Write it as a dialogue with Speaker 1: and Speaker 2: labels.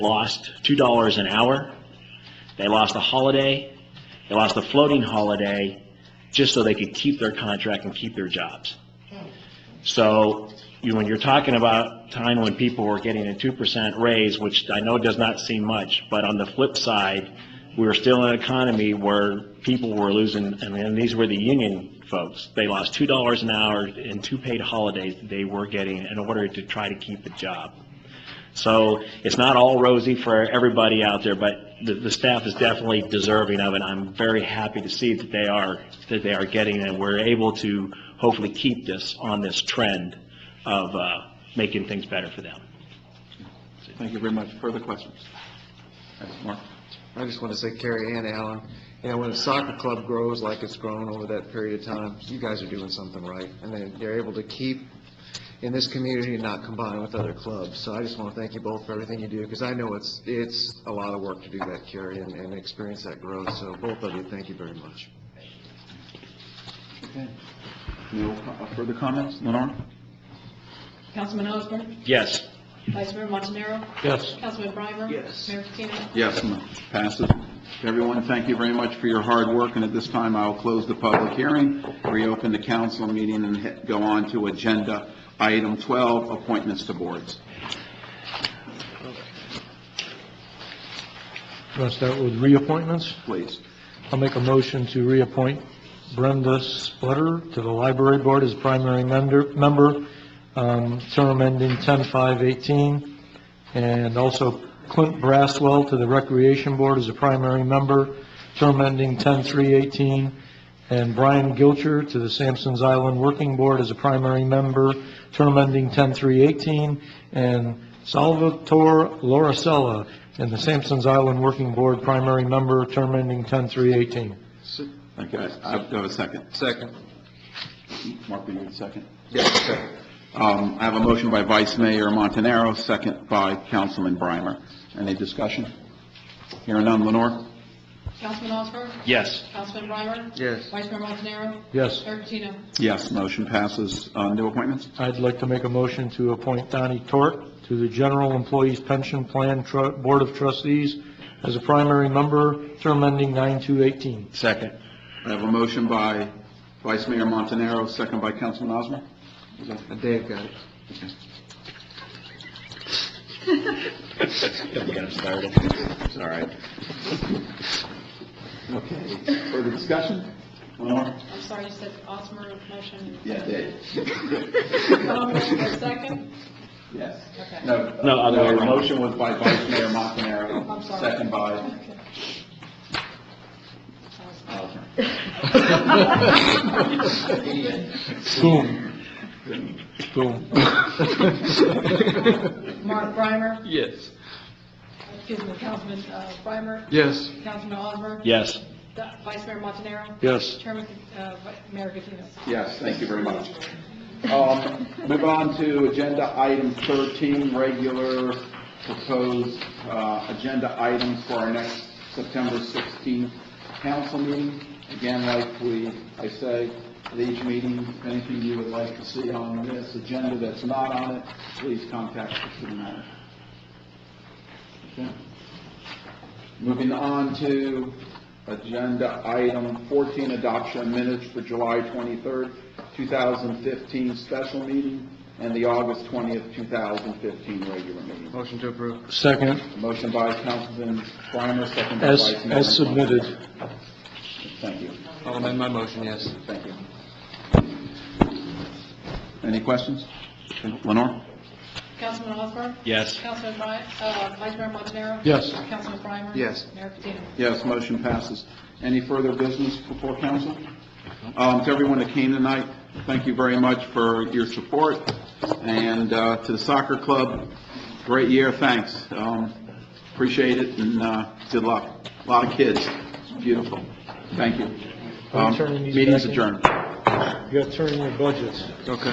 Speaker 1: lost $2 an hour. They lost a holiday. They lost a floating holiday just so they could keep their contract and keep their jobs. So you, when you're talking about time when people were getting a 2% raise, which I know does not seem much, but on the flip side, we were still in an economy where people were losing, and then these were the union folks. They lost $2 an hour and two paid holidays they were getting in order to try to keep a job. So it's not all rosy for everybody out there, but the, the staff is definitely deserving of it. I'm very happy to see that they are, that they are getting, and we're able to hopefully keep this on this trend of, uh, making things better for them.
Speaker 2: Thank you very much. Further questions? Mark?
Speaker 3: I just want to say Carrie and Alan, you know, when a soccer club grows like it's grown over that period of time, you guys are doing something right. And then you're able to keep in this community and not combine with other clubs. So I just want to thank you both for everything you do, because I know it's, it's a lot of work to do that, Carrie, and, and experience that growth. So both of you, thank you very much.
Speaker 2: Okay. No co- uh, further comments? Lenore?
Speaker 4: Councilman Osborne?
Speaker 1: Yes.
Speaker 4: Vice Mayor Montanaro?
Speaker 2: Yes.
Speaker 4: Councilman Breimer?
Speaker 3: Yes.
Speaker 4: Mayor Patino?
Speaker 2: Yes, mo- passes. Everyone, thank you very much for your hard work, and at this time, I will close the public hearing, reopen the council meeting, and he- go on to agenda item 12, appointments to boards.
Speaker 5: Want to start with reappointments?
Speaker 2: Please.
Speaker 5: I'll make a motion to reappoint Brenda Splitter to the Library Board as primary mender- member, um, term ending 10/5/18, and also Clint Braswell to the Recreation Board as a primary member, term ending 10/3/18, and Brian Gilcher to the Sampson's Island Working Board as a primary member, term ending 10/3/18, and Salvatore Lorasella in the Sampson's Island Working Board, primary member, term ending 10/3/18.
Speaker 2: Okay, I'll go a second.
Speaker 3: Second.
Speaker 2: Mark, will you a second?
Speaker 3: Yes, second.
Speaker 2: Um, I have a motion by Vice Mayor Montanaro, second by Councilman Breimer. Any discussion? Hearing none, Lenore?
Speaker 4: Councilman Osborne?
Speaker 1: Yes.
Speaker 4: Councilman Breimer?
Speaker 3: Yes.
Speaker 4: Vice Mayor Montanaro?
Speaker 5: Yes,
Speaker 4: Mayor Patino?
Speaker 2: Yes, motion passes. Uh, New appointments?
Speaker 5: I'd like to make a motion to appoint Donnie Tork to the General Employees Pension Plan Tru- Board of Trustees as a primary member, term ending 9/2/18.
Speaker 1: Second.
Speaker 2: I have a motion by Vice Mayor Montanaro, second by Councilman Osmer.
Speaker 3: And Dave got it.
Speaker 2: It's all right. Okay, further discussion? Lenore?
Speaker 4: I'm sorry, you said Osmer motion.
Speaker 2: Yeah, Dave.
Speaker 4: Um, Second?
Speaker 2: Yes.
Speaker 4: Okay.
Speaker 2: No,
Speaker 1: No,
Speaker 2: no,
Speaker 1: other way
Speaker 2: the
Speaker 1: around.
Speaker 2: motion was by Vice Mayor Montanaro.
Speaker 4: I'm sorry.
Speaker 2: Second by
Speaker 4: Okay.
Speaker 2: Osmer.
Speaker 5: Boom. Boom.
Speaker 4: Mark Breimer?
Speaker 3: Yes.
Speaker 4: Excuse me, Councilman uh, Breimer?
Speaker 3: Yes.
Speaker 4: Councilman Osborne?
Speaker 1: Yes.
Speaker 4: Di- Vice Mayor Montanaro?
Speaker 5: Yes.
Speaker 4: Chairman, uh, Vi- Mayor Patino?
Speaker 2: Yes, thank you very much. Um, Move on to agenda item 13, regular proposed uh, agenda items for our next September 16th council meeting. Again, like we, I say at each meeting, if anything you would like to see on this agenda that's not on it, please contact the city manager. Okay. Moving on to agenda item 14, adoption of minutes for July 23rd, 2015 special meeting and the August 20th, 2015 regular meeting.
Speaker 3: Motion to approve.
Speaker 5: Second,
Speaker 2: Motion by Councilman Breimer, second by
Speaker 5: as,
Speaker 2: Vice Mayor.
Speaker 5: as submitted.
Speaker 2: Thank you,
Speaker 3: I'll amend my motion, yes.
Speaker 2: thank you. Any questions? Lenore?
Speaker 4: Councilman Osborne?
Speaker 1: Yes.
Speaker 4: Councilman Bri- uh, Vice Mayor Montanaro?
Speaker 5: Yes.
Speaker 4: Councilman Breimer?
Speaker 3: Yes.
Speaker 4: Mayor Patino?
Speaker 2: Yes, motion passes. Any further business before council? Um, To everyone that came tonight, thank you very much for your support, and uh, to the soccer club, great year, thanks. Um, Appreciate it, and uh, good luck. A Lot of kids, It's beautiful. Thank you.
Speaker 5: I'm
Speaker 2: Um,
Speaker 5: turning these
Speaker 2: Meeting's
Speaker 5: back in.
Speaker 2: adjourned.
Speaker 5: You got to turn in your budgets.
Speaker 3: Okay.